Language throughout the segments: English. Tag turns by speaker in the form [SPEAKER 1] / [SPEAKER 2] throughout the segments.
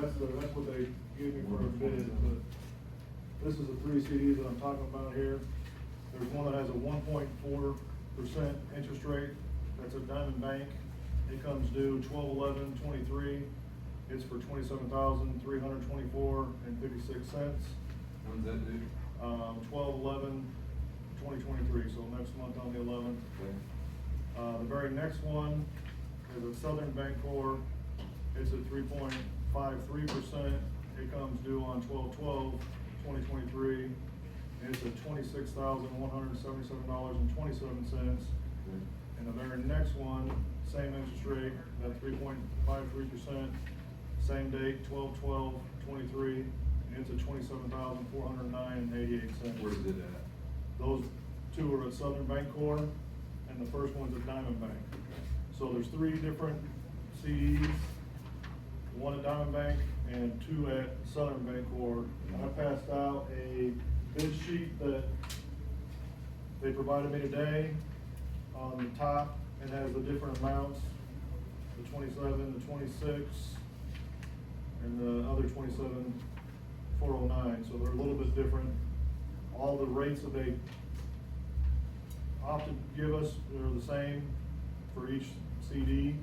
[SPEAKER 1] that's the, that's what they gave me for a bid, but this is the three CDs that I'm talking about here. There's one that has a one point four percent interest rate, that's a Diamond Bank. It comes due twelve eleven twenty-three, it's for twenty-seven thousand, three hundred twenty-four and fifty-six cents.
[SPEAKER 2] When's that due?
[SPEAKER 1] Um, twelve eleven, twenty twenty-three, so next month on the eleventh. Uh, the very next one is a Southern Bancorp. It's at three point five three percent. It comes due on 12/12/2023, And it's at twenty-six thousand, one hundred and seventy-seven dollars and twenty-seven cents. And the very next one, same interest rate, at three point five three percent, same date, 12/12/23, And it's at twenty-seven thousand, four hundred and nine and eighty-eight cents.
[SPEAKER 2] Where's it at?
[SPEAKER 1] Those two are at Southern Bank Corp, and the first one's at Diamond Bank. So there's three different CDs, one at Diamond Bank and two at Southern Bank Corp. And I passed out a bid sheet that they provided me today on the top, and has the different amounts, the twenty-seven, the twenty-six, and the other twenty-seven, four oh nine, so they're a little bit different. All the rates that they opted to give us are the same for each CD.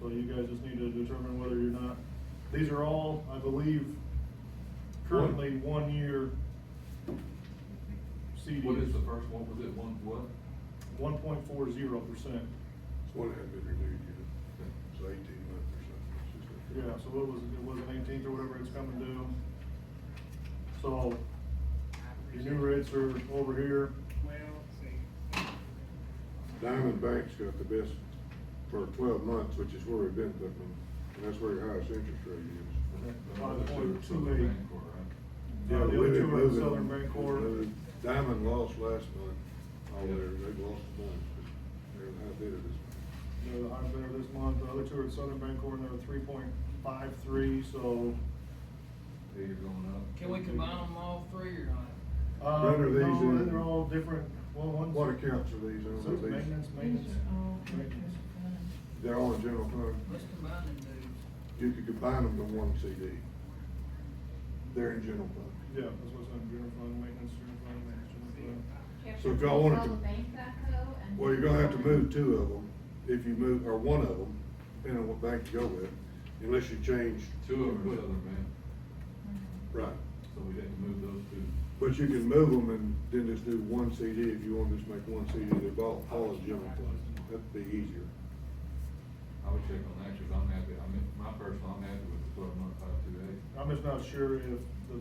[SPEAKER 1] So you guys just need to determine whether you're not, these are all, I believe, currently one-year CDs.
[SPEAKER 2] What is the first one? Was it one, what?
[SPEAKER 1] One point four zero percent.
[SPEAKER 3] It's one that hasn't been renewed yet, it's eighteen months or something. It's just a-
[SPEAKER 1] Yeah, so what was it, it was an eighteenth or whatever it's coming due. So, your new rates are over here.
[SPEAKER 3] Diamond Bank's got the best for twelve months, which is where we've been putting them, and that's where your highest interest rate is.
[SPEAKER 1] Five point two
[SPEAKER 2] Southern
[SPEAKER 1] eight.
[SPEAKER 2] Bancorp, right?
[SPEAKER 1] Yeah, the other
[SPEAKER 3] we've been
[SPEAKER 1] two are
[SPEAKER 3] moving-
[SPEAKER 1] Southern Bancorp.
[SPEAKER 3] we've moved. Diamond lost last month, all their, they lost a bunch, but they're the high bidder this month.
[SPEAKER 1] They're the high bidder this month, the other two are at Southern Bancorp, and they're three point five three, so.
[SPEAKER 2] Yeah, you're going up.
[SPEAKER 4] Can we combine them all three or not?
[SPEAKER 1] Uh,
[SPEAKER 3] What are these
[SPEAKER 1] no,
[SPEAKER 3] in?
[SPEAKER 1] they're all different, well, one's.
[SPEAKER 3] What accounts are these on?
[SPEAKER 1] So it's maintenance, maintenance. maintenance.
[SPEAKER 3] They're all in general fund.
[SPEAKER 4] Let's combine them dudes.
[SPEAKER 3] You could combine them to one CD. They're in general fund.
[SPEAKER 1] Yeah, that's what's on general fund, maintenance, general fund, management, general fund.
[SPEAKER 3] So if y'all wanted to- Well,
[SPEAKER 5] Well,
[SPEAKER 3] you're gonna have to move two of them, if you move, or one of them, depending on what bank you go with, unless you change.
[SPEAKER 2] Two of them are Southern Bank,
[SPEAKER 5] Mm-hmm.
[SPEAKER 3] Right,
[SPEAKER 2] so we had to move those two.
[SPEAKER 3] but you can move them and then just do one CD if you want to just make one CD, they're all, all is general fund, that'd be easier.
[SPEAKER 2] I would check on that, cause I'm happy, I mean, my personal, I'm happy with the twelve month five two eight.
[SPEAKER 1] I'm just not sure if the,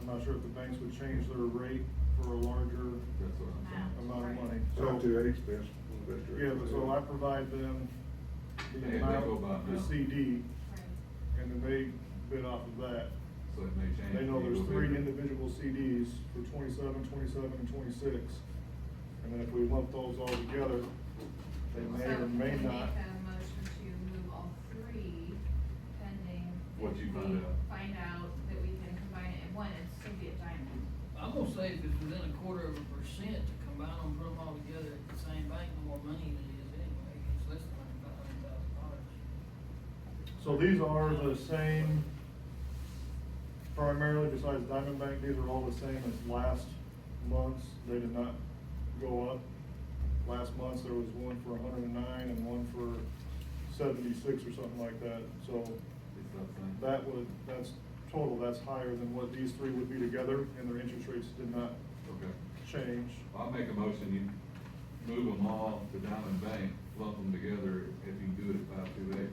[SPEAKER 1] I'm not sure if the banks would change their rate for a larger
[SPEAKER 2] That's what I'm saying.
[SPEAKER 1] amount of money.
[SPEAKER 3] So
[SPEAKER 1] So-
[SPEAKER 3] two eight's best, best. rate.
[SPEAKER 1] Yeah, but so I provide them
[SPEAKER 2] Yeah, they
[SPEAKER 1] the
[SPEAKER 2] go by
[SPEAKER 1] amount, the
[SPEAKER 2] amount.
[SPEAKER 1] CD, and then they bid off of that.
[SPEAKER 2] So it may change.
[SPEAKER 1] They know
[SPEAKER 2] You
[SPEAKER 1] there's
[SPEAKER 2] go
[SPEAKER 1] three
[SPEAKER 2] bigger.
[SPEAKER 1] individual CDs for twenty-seven, twenty-seven, and twenty-six. And then if we lump those all together, they may or may not.
[SPEAKER 5] Make a motion to move all three pending.
[SPEAKER 2] What you
[SPEAKER 5] if we
[SPEAKER 2] find out.
[SPEAKER 5] Find out that we can combine it in one, and still be a diamond.
[SPEAKER 4] I'm gonna say if it's within a quarter of a percent to combine them, put them all together at the same bank, no more money than it is anyway. It's less than five hundred thousand dollars.
[SPEAKER 1] So these are the same, primarily besides Diamond Bank, these are all the same as last month's. They did not go up. Last month's, there was one for hundred and nine and one for seventy-six or something like that. So
[SPEAKER 2] It's not the same.
[SPEAKER 1] that would, that's total, that's higher than what these three would be together, and their interest rates did not
[SPEAKER 2] Okay.
[SPEAKER 1] change.
[SPEAKER 2] I'll make a motion, you move them all to Diamond Bank, lump them together if you do it at five two eight.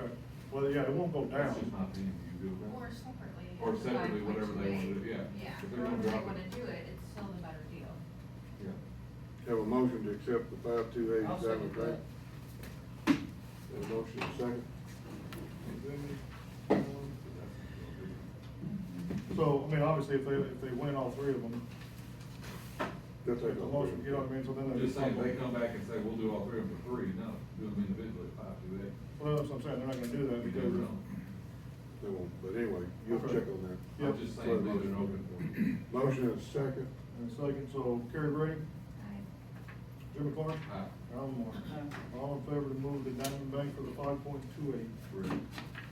[SPEAKER 1] Okay, well, yeah, it won't go down.
[SPEAKER 2] That's just my opinion, you do it.
[SPEAKER 5] Or separately.
[SPEAKER 2] Or
[SPEAKER 5] it's
[SPEAKER 2] separately, whatever they wanna do,
[SPEAKER 5] 5.28.
[SPEAKER 2] yeah.
[SPEAKER 5] Yeah,
[SPEAKER 2] If they're gonna
[SPEAKER 5] however they
[SPEAKER 2] drop it.
[SPEAKER 5] wanna do it, it's still the better deal.
[SPEAKER 2] Yeah.
[SPEAKER 3] Have a motion to accept the five two eight
[SPEAKER 4] I'll
[SPEAKER 3] Diamond
[SPEAKER 4] second
[SPEAKER 3] Bank.
[SPEAKER 4] that.
[SPEAKER 3] Have a motion second.
[SPEAKER 2] Mm-hmm.
[SPEAKER 1] So, I mean, obviously, if they, if they win all three of them,
[SPEAKER 3] They'll
[SPEAKER 1] the
[SPEAKER 3] take all
[SPEAKER 1] motion,
[SPEAKER 3] three.
[SPEAKER 1] you know what I mean, so then.
[SPEAKER 2] I'm
[SPEAKER 1] they-
[SPEAKER 2] just saying, they come back and say, we'll do all three of them for free, no, do them individually at five two eight.
[SPEAKER 1] Well, that's what I'm saying, they're not gonna do that because.
[SPEAKER 3] They won't, but anyway, you'll
[SPEAKER 1] Okay.
[SPEAKER 3] check on that.
[SPEAKER 1] Yeah.
[SPEAKER 2] I'm just saying, leave it open
[SPEAKER 3] Motion is second.
[SPEAKER 1] And second, so Kerry Brady,
[SPEAKER 5] I-
[SPEAKER 1] Jimmy Clark,
[SPEAKER 2] Aye.
[SPEAKER 1] Alan Moore.
[SPEAKER 4] Aye.
[SPEAKER 1] All in favor to move the Diamond Bank for the five point two eight.
[SPEAKER 2] for free.